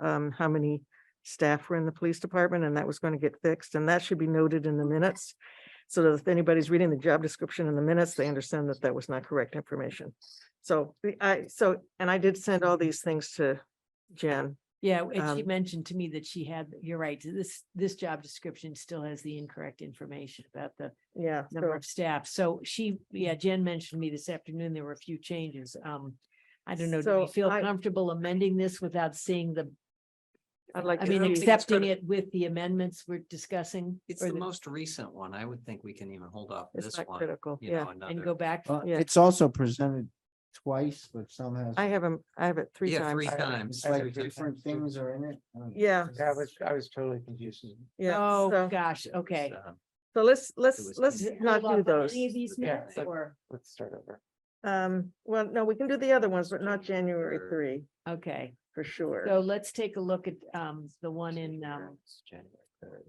um, how many staff were in the police department and that was going to get fixed and that should be noted in the minutes. So that if anybody's reading the job description in the minutes, they understand that that was not correct information. So the- I, so, and I did send all these things to Jen. Yeah, and she Um, mentioned to me that she had, you're right, this, this job description still has the incorrect information about the Yeah. number so- of staff. So she, yeah, Jen mentioned to me this afternoon, there were a few changes. Um, I don't know, do So we feel I- comfortable amending this without seeing the, I'd like. I to mean, see- think it's accepting gonna- it with the amendments we're discussing? It's or the most recent one. I would think we can even hold off It's this not one. critical. you Yeah. know, And go another- back, Uh, Yeah. It's also presented twice, but some has. I have them, I have it three times. Yeah, three I have it. times. It's three like times. different things are in it. Uh, I don't know. Yeah. I was, I was totally confused. Yeah. oh, so- gosh, okay. It's, um, So let's, let's, was let's Is it- not hold do off on those. Any of these Yeah, minutes so- or, Let's start over. Um, well, no, we can do the other ones, but not January Sure. three, okay, for sure. so let's take a look at, um, the one in, um, it's January third.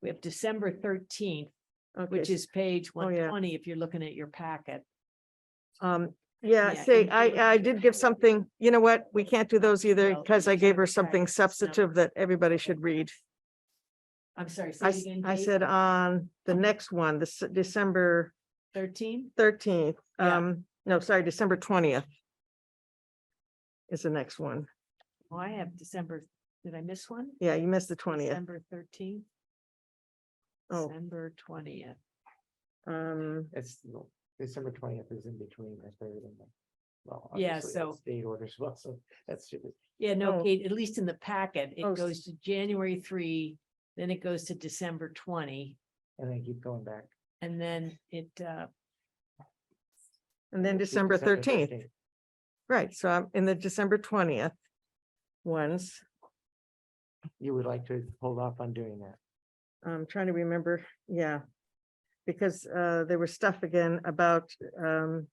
we have December thirteenth, Okay, which is page Oh, one yeah. twenty, if you're looking at your packet. Um, yeah, Yeah, see, and you- I, I did give something, you know what, we can't do those either, No, because I you gave her can't track something those substantive that everybody should read. I'm sorry, say I, it Uh-huh. s- again. I said on the next one, this December Thirteen? thirteenth, Yeah. um, no, sorry, December twentieth. Is the next one. Oh, I have December, did I miss one? Yeah, you missed the twentieth. December thirteenth, Oh, December twentieth. um, It's December twentieth is in between the third and the. Well. Yeah, obviously, so- that's State orders, well, so that's. Yeah, no, Oh. Kate, at least in the packet, Oh, it s- goes to January three, then it goes to December twenty, And then keep going back. and then it, uh, and then December thirteenth. Right, so I'm in the December twentieth ones. You would like to hold off on doing that. I'm trying to remember, yeah. Because uh, there was stuff again about um.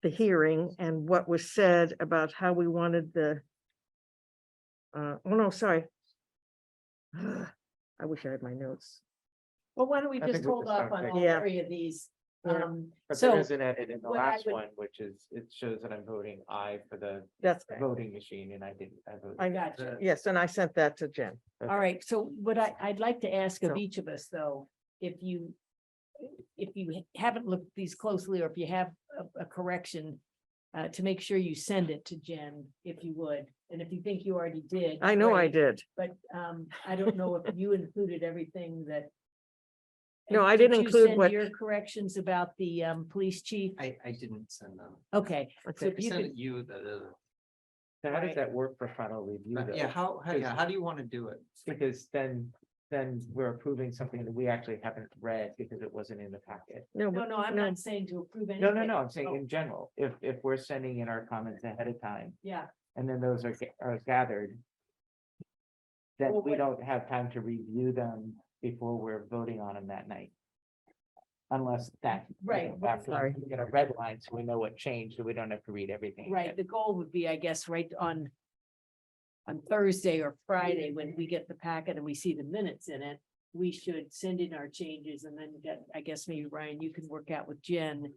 The hearing and what was said about how we wanted the. Uh, oh no, sorry. I wish I had my notes. well, why don't we I think just we hold just off don't on take- all Yeah. three of these? Yeah. Um, But so, there is an edit in the what I last would- one, which is, it shows that I'm voting aye for the That's, voting machine and I didn't. I voted I gotcha. the- yes, and I sent that to Jen. All right, so what I, I'd like to ask So- of each of us, though, if you, if you haven't looked these closely, or if you have a, a correction, uh, to make sure you send it to Jen, if you would, and if you think you already did. I know I great, did. But, um, I don't know if you included everything that. No, and I did didn't you include send what- Your corrections about the, um, police chief, I, I didn't send them. okay, so Okay, if I you sent could, it you the, the- So how Right. does that work for final review but Uh, yeah, though? how, how, yeah, how do you want to do it? Because then, then we're approving something that we actually haven't read because it wasn't in the packet. no, no, but- no, I'm no. not saying to approve anything. No, no, no, I'm Oh. saying in general, if, if we're sending in our comments ahead of time Yeah, and then those are, ga- are gathered. Well, Then we what- don't have time to review them before we're voting on them that night. Unless that. you Right, know, well, after sorry. We get a red line, so we know what changed, so we don't have to read everything. Right, again. the goal would be, I guess, right on. On Thursday or Friday, when we get the packet and we see the minutes in it, we should send in our changes and then get, I guess maybe Ryan, you can work out with Jen.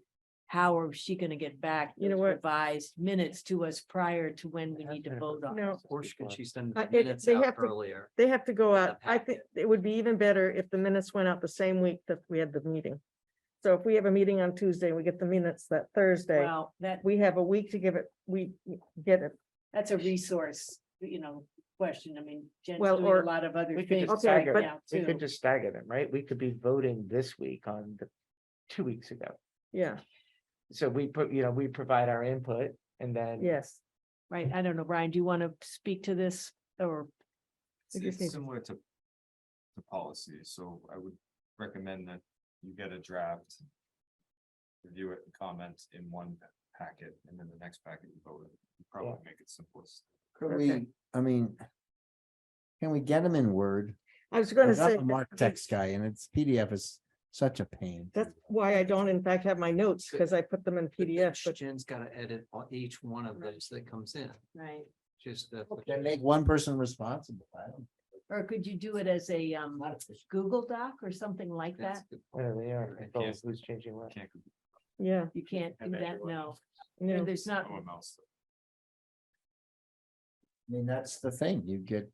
How are she gonna get back? You know those what? Revised minutes to us prior to when we need to vote on. No. Or should could she send Uh, the it- minutes they out have to- earlier? They have to go With the out. I think it would be even better if the minutes went out the same week that we had the meeting. So if we have a meeting on Tuesday, and we get the minutes that Thursday. Well, that, We have a week to give it, we get it. that's a resource, you know, question. I mean, Jen's Well, doing or- a lot of other We could things. just Okay, stagger, but- it. now, we too. could just stagger them, right? We could be voting this week on the, two weeks ago. Yeah, So we put, you know, we provide our input and then. yes. Right, I don't know, Ryan, do you want to speak to this or? We It's just need it's to- similar to, to policy, so I would recommend that you get a draft. Review it and comment in one packet, and then the next packet you vote, it. You probably make it simplest. Could Okay. we, I mean. Can we get them in Word? I was gonna Because say, I'm a Mark text guy and it's PDF is such a pain. that's why I don't in fact have my notes, because I put them in But PDF, each- but Jen's got to edit on each one of Right. those that comes in, Right. just. the- Then make one person responsible. I don't- Or could you do it as a um Google Doc or something like that? That's good. Whatever they are, I control can't- who's changing what. Can't. yeah, You can't do have that, everyone. no. no. There's not, Someone else. I mean, that's the thing, you get